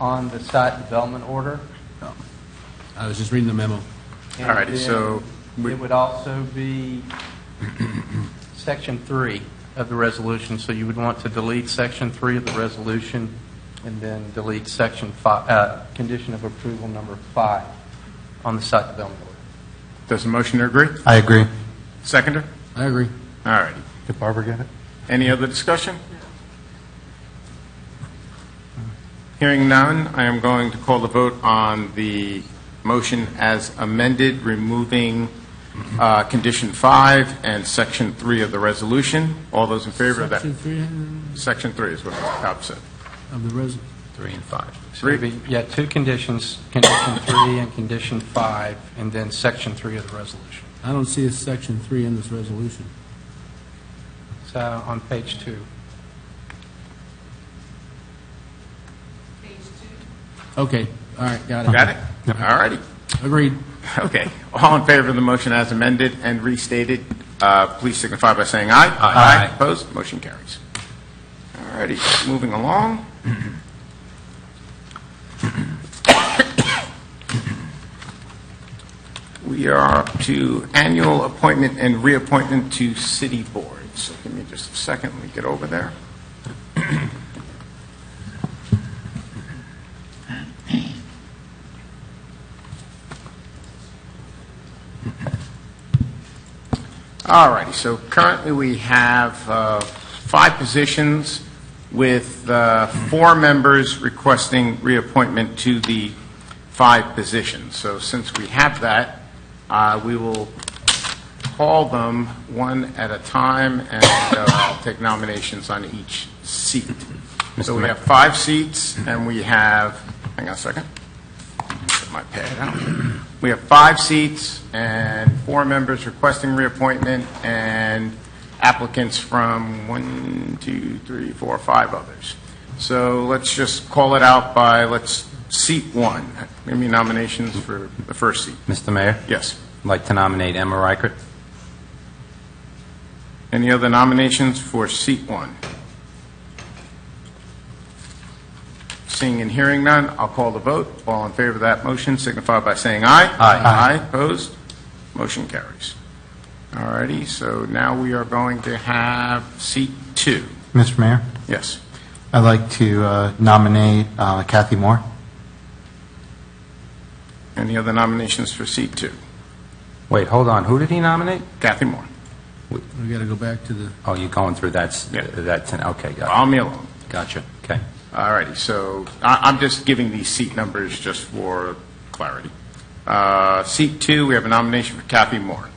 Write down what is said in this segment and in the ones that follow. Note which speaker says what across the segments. Speaker 1: on the site development order.
Speaker 2: I was just reading the memo.
Speaker 1: And
Speaker 3: All righty,
Speaker 1: then
Speaker 3: so we-
Speaker 1: It would also be section three of the resolution, so you would want to delete section three of the resolution and then delete section five, uh, condition of approval number five on the site development order.
Speaker 3: Does the motioner agree?
Speaker 4: I agree.
Speaker 3: Seconder?
Speaker 2: I agree.
Speaker 3: All righty.
Speaker 4: Did Barbara get it?
Speaker 3: Any other discussion? Hearing none, I am going to call the vote on the motion as amended, removing uh, Condition 5 and Section 3 of the resolution. All those in favor of that?
Speaker 2: Section three uh,
Speaker 3: Section 3 is what Bob said.
Speaker 2: of the res,
Speaker 3: Three and five.
Speaker 1: So it'd be- Yeah, two conditions, condition three and condition five, and then section three of the resolution.
Speaker 2: I don't see a section three in this resolution.
Speaker 1: So on page two.
Speaker 2: Okay, all right, got it.
Speaker 3: Got it? All righty.
Speaker 2: Agreed.
Speaker 3: Okay. All in favor of the motion as amended and restated, uh, please signify by saying aye. Aye. Opposed? Motion carries. All righty, moving along. We are up to annual appointment and reappointment to city boards. So give me just a second, let me get over there. All righty, so currently we have uh, five positions with uh, four members requesting reappointment to the five positions. So since we have that, uh, we will call them one at a time and uh, take nominations on each seat. So we have five seats, and we have, hang on a second, Get my pad out. We have five seats and four members requesting reappointment, and applicants from one, two, three, four, five others. So let's just call it out by, let's, seat one. Give me nominations for the first seat.
Speaker 4: Mr. Mayor,
Speaker 3: Yes.
Speaker 4: I'd like to nominate Emma Reichert.
Speaker 3: Any other nominations for seat one? Seeing and hearing none, I'll call the vote. All in favor of that motion signify by saying aye.
Speaker 4: Aye.
Speaker 3: Aye, opposed? Motion carries. All righty, so now we are going to have seat two.
Speaker 4: Mr. Mayor,
Speaker 3: Yes.
Speaker 4: I'd like to uh, nominate uh, Kathy Moore.
Speaker 3: Any other nominations for seat two?
Speaker 4: Wait, hold on, who did he nominate?
Speaker 3: Kathy Moore.
Speaker 2: We got to go back to the,
Speaker 4: Oh, you're going through that, s-
Speaker 3: Yeah.
Speaker 4: that, ten- okay, got
Speaker 3: Follow me alone.
Speaker 4: it. gotcha, okay.
Speaker 3: All righty, so I- I'm just giving these seat numbers just for clarity. Uh, Seat two, we have a nomination for Kathy Moore.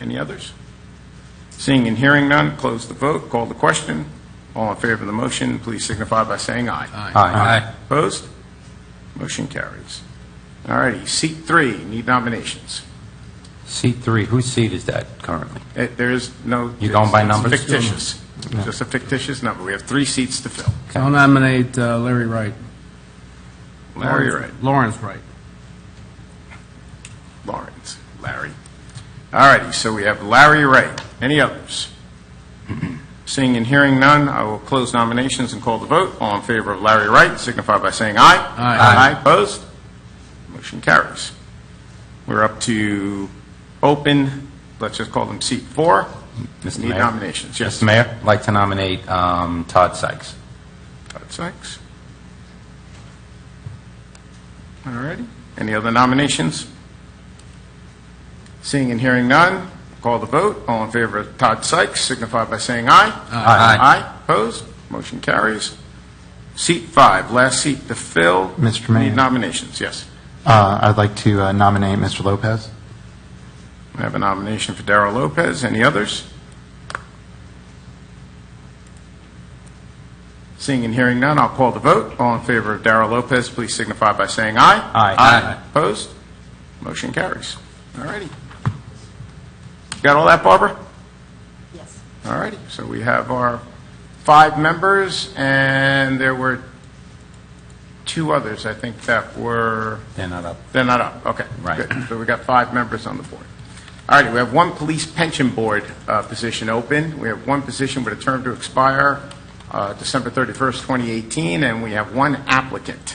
Speaker 3: Any others? Seeing and hearing none, close the vote, call the question. All in favor of the motion, please signify by saying aye.
Speaker 4: Aye.
Speaker 3: Opposed? Motion carries. All righty, seat three, need nominations.
Speaker 4: Seat three, whose seat is that currently?
Speaker 3: It- Eh, There is no...
Speaker 4: You going by
Speaker 3: it's
Speaker 4: numbers?
Speaker 3: Fictitious, just a fictitious number. We have three seats to fill.
Speaker 2: so I'll nominate uh, Larry Wright.
Speaker 3: Larry, you're right.
Speaker 2: Lawrence Wright.
Speaker 3: Lawrence, Larry. All righty, so we have Larry Wright. Any others? Seeing and hearing none, I will close nominations and call the vote. All in favor of Larry Wright signify by saying aye.
Speaker 2: Aye.
Speaker 3: Aye, opposed? Motion carries. We're up to open, let's just call them seat four.
Speaker 4: Mr.
Speaker 3: Need
Speaker 4: Mayor?
Speaker 3: nominations, yes.
Speaker 4: Mr. Mayor, I'd like to nominate um, Todd Sykes.
Speaker 3: Todd Sykes. All righty. Any other nominations? Seeing and hearing none, call the vote. All in favor of Todd Sykes signify by saying aye.
Speaker 4: Aye.
Speaker 3: Aye. Opposed? Motion carries. Seat five, last seat to fill.
Speaker 4: Mr. Mayor.
Speaker 3: Need nominations, yes.
Speaker 4: Uh, I'd like to uh, nominate Mr. Lopez.
Speaker 3: We have a nomination for Darrell Lopez. Any others? Seeing and hearing none, I'll call the vote. All in favor of Darrell Lopez, please signify by saying aye.
Speaker 4: Aye. Aye.
Speaker 3: Opposed? Motion carries. All righty. Got all that, Barbara?
Speaker 5: Yes.
Speaker 3: All righty. So we have our five members, and there were two others, I think, that were...
Speaker 4: They're not up.
Speaker 3: They're not up, okay.
Speaker 4: Right.
Speaker 3: Good. So we got five members on the board. All righty, we have one police pension board uh, position open. We have one position with a term to expire uh, December 31st, 2018, and we have one applicant.